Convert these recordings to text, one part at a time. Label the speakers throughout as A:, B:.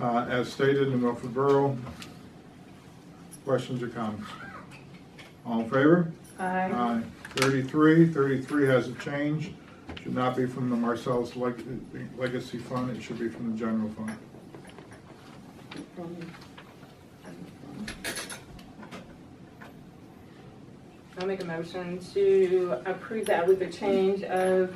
A: uh, as stated in Milford Borough. Questions or comments? All in favor?
B: Aye.
A: Aye. Thirty-three, thirty-three has a change, should not be from the Marcellus Leg- Legacy Fund, it should be from the general fund.
B: I'll make a motion to approve that with a change of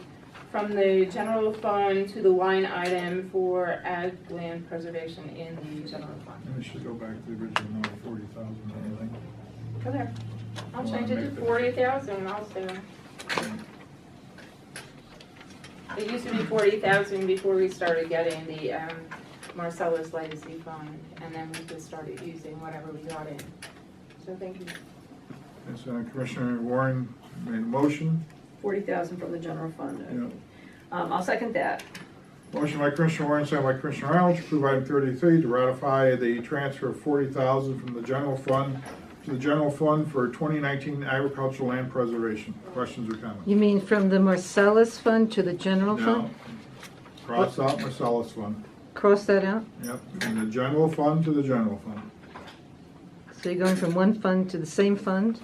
B: from the general fund to the line item for ag land preservation in the general fund.
A: And it should go back to the original number, forty thousand or anything.
B: Okay, I'll
A: Well,
B: change
A: I
B: it
A: make
B: to
A: the-
B: forty thousand also. It used to be forty thousand before we started getting the, um, Marcellus Legacy Fund, and then we just started using whatever we got in. So thank you.
A: And so Commissioner Warren made a motion,
C: Forty thousand from the general fund.
A: Yeah.
C: Um, I'll second that.
A: Motion by Commissioner Warren, second by Commissioner Arnold, to approve item thirty-three, to ratify the transfer of forty thousand from the general fund to the general fund for twenty nineteen agricultural land preservation. Questions or comments?
D: You mean from the Marcellus Fund to the general
A: No.
D: fund?
A: Cross out Marcellus Fund.
D: Cross that out?
A: Yep, from the general fund to the general fund.
D: So you're going from one fund to the same fund,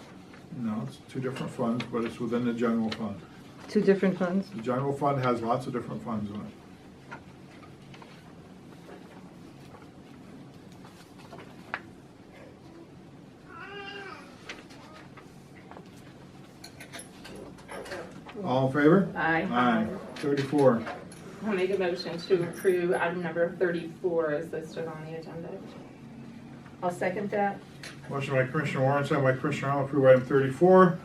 A: No, it's two different funds, but it's within the general fund.
D: two different funds?
A: The general fund has lots of different funds in it. All in favor?
C: Aye.
A: Thirty-four.
B: I'll make a motion to approve item number thirty-four as listed on the agenda.
C: I'll second that.
A: Motion by Commissioner Warren, second by Commissioner Arnold, approve item thirty-four.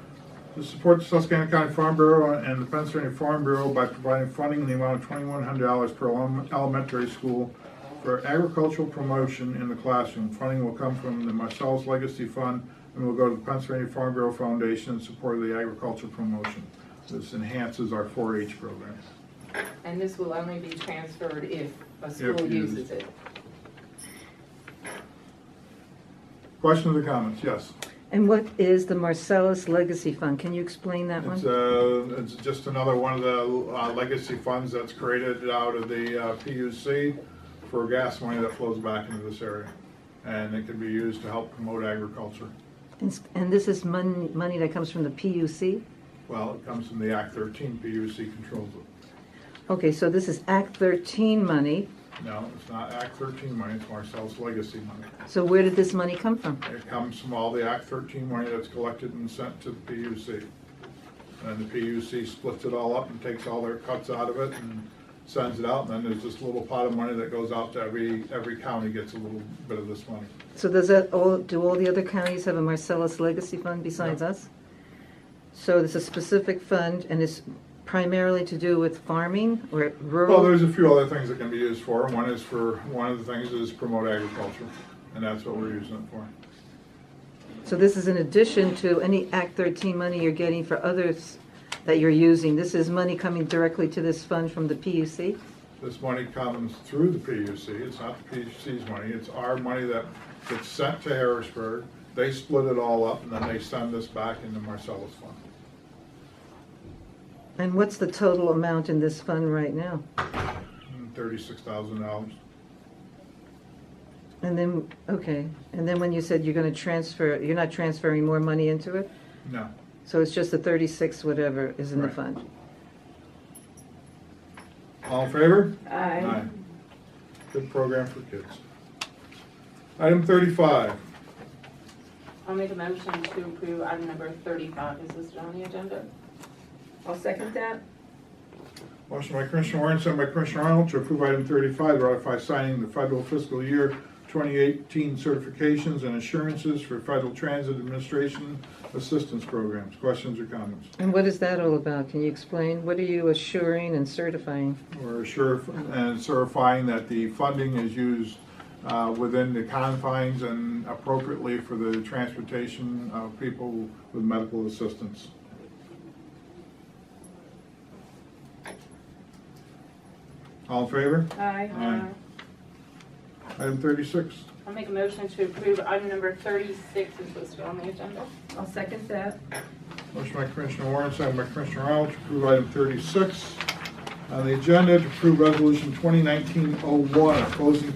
A: To support the Susquehanna County Farm Bureau and the Pennsylvania Farm Bureau by providing funding in the amount of twenty-one hundred dollars per elem- elementary school for agricultural promotion in the classroom. Funding will come from the Marcellus Legacy Fund and will go to the Pennsylvania Farm Bureau Foundation in support of the agricultural promotion. This enhances our four-H program.
B: And this will only be transferred if a school
A: used.
B: uses it.
A: Questions or comments? Yes?
D: And what is the Marcellus Legacy Fund? Can you explain that
A: It's,
D: one?
A: uh, it's just another one of the uh, legacy funds that's created out of the uh, PUC for gas money that flows back into this area. And it can be used to help promote agriculture.
D: And s- And this is money, money that comes from the PUC?
A: Well, it comes from the Act thirteen, PUC controls it.
D: Okay, so this is Act 13 money,
A: No, it's not Act thirteen money, it's Marcel's legacy money.
D: so where did this money come from?
A: It comes from all the Act thirteen money that's collected and sent to the PUC. And the PUC splits it all up and takes all their cuts out of it and sends it out, and then there's this little pot of money that goes out to every, every county gets a little bit of this money.
D: So does that, all, do all the other counties have a Marcellus Legacy Fund besides
A: No.
D: us? So there's a specific fund and it's primarily to do with farming or rural?
A: Well, there's a few other things that can be used for, one is for, one of the things is promote agriculture, and that's what we're using it for.
D: So this is in addition to any Act 13 money you're getting for others that you're using. This is money coming directly to this fund from the PUC?
A: This money comes through the PUC, it's not the PUC's money, it's our money that gets sent to Harrisburg. They split it all up, and then they send this back into Marcellus Fund.
D: And what's the total amount in this fund right now?
A: Hmm, Thirty-six thousand dollars.
D: And then, okay, and then when you said you're gonna transfer, you're not transferring more money into it?
A: No.
D: So it's just the 36 whatever is in the
A: Right.
D: fund?
A: All in favor?
C: Aye.
A: Good program for kids. Item thirty-five.
B: I'll make a motion to approve item number thirty-five as listed on the agenda.
C: I'll second that.
A: Motion by Commissioner Warren, sent by Commissioner Arnold to approve item thirty-five, to ratify signing the federal fiscal year twenty eighteen certifications and assurances for Federal Transit Administration Assistance Programs. Questions or comments?
D: And what is that all about? Can you explain? What are you assuring and certifying?
A: We're assure and certifying that the funding is used uh, within the confines and appropriately for the transportation of people with medical assistance. All in favor? Aye. Item thirty-six.
B: I'll make a motion to approve item number thirty-six as listed on the agenda.
C: I'll second that.
A: Motion by Commissioner Warren, second by Commissioner Arnold, to approve item thirty-six on the agenda to approve resolution 2019-01, opposing